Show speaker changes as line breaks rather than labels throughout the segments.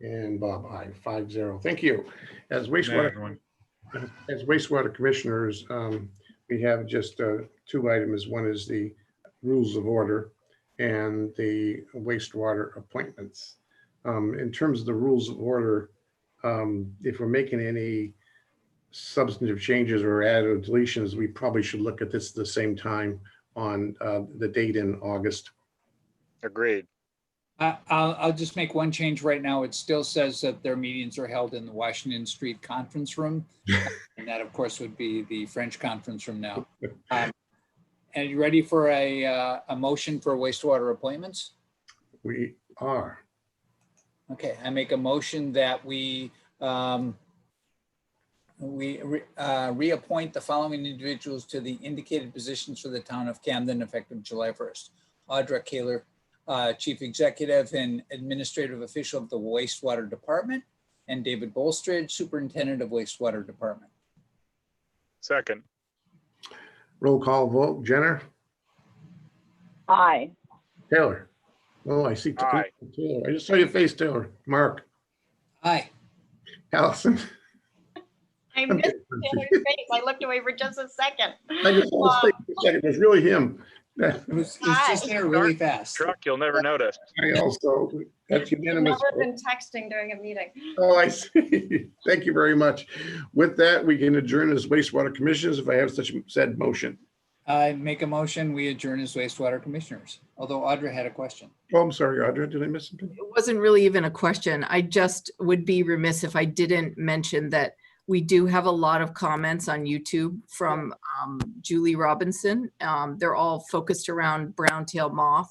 And Bob, aye, five zero. Thank you. As
Night,
wastewater
everyone.
As wastewater commissioners, um, we have just uh, two items. One is the rules of order and the wastewater appointments. Um, In terms of the rules of order, um, if we're making any substantive changes or add or deletions, we probably should look at this at the same time on uh, the date in August.
Agreed.
I- I'll, I'll just make one change right now. It still says that their meetings are held in the Washington Street Conference Room. And that, of course, would be the French Conference Room now. Um, And you ready for a, uh, a motion for wastewater appointments?
We are.
Okay, I make a motion that we, um, we re- uh, reappoint the following individuals to the indicated positions for the town of Camden effective July 1st. Audra Kaler, uh, Chief Executive and Administrative Official of the Wastewater Department, and David Bolstridge, Superintendent of Wastewater Department.
Second,
Roll call vote. Jenner?
Aye.
Taylor? Oh, I see.
Aye.
Taylor. I just saw your face, Taylor. Mark?
Aye.
Allison?
I missed Taylor's face. I looked away for just a second.
I just want to say for a second, it was really him. That-
It was, it was just there really fast.
truck, you'll never notice.
I also, that's unanimous.
Never been texting during a meeting.
Oh, I see. Thank you very much. With that, we can adjourn as wastewater commissioners if I have such said motion.
I make a motion, we adjourn as wastewater commissioners, although Audra had a question.
Oh, I'm sorry, Audra, did I miss something?
it wasn't really even a question. I just would be remiss if I didn't mention that we do have a lot of comments on YouTube from um, Julie Robinson. Um, They're all focused around brown tail moth.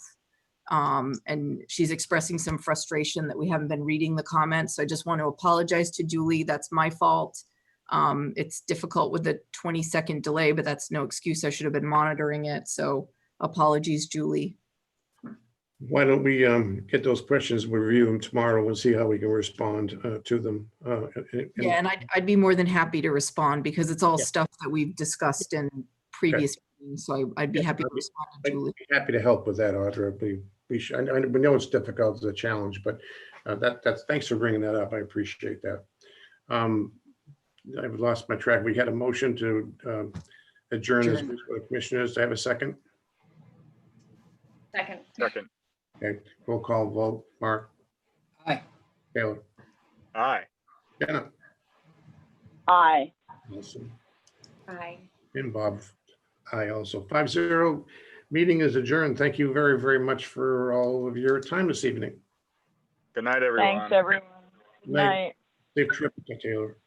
Um, And she's expressing some frustration that we haven't been reading the comments. So I just want to apologize to Julie. That's my fault. Um, It's difficult with the 20-second delay, but that's no excuse. I should have been monitoring it. So apologies, Julie.
Why don't we um, get those questions, we'll review them tomorrow and see how we can respond uh, to them. uh, and- and-
Yeah, and I'd, I'd be more than happy to respond because it's all stuff that we've discussed in previous meetings, so I- I'd be
Yeah,
happy to
that'd be-
respond to
I'd
Julie.
be Happy to help with that, Audra. We, we should, I know- we know it's difficult, it's a challenge, but uh, that, that's, thanks for bringing that up. I appreciate that. Um, I've lost my track. We had a motion to um, adjourn as
Adjourn.
commissioners. Do I have a second?
Second.
Second,
Roll call vote. Mark,
Aye.
Taylor,
aye.
Jenna,
Aye.
Nelson,
Aye.
and Bob. I also, five zero. Meeting is adjourned. Thank you very, very much for all of your time this evening.
Good night, everyone.
Thanks, everyone. Good
Night.
night.
Safe trip, Taylor.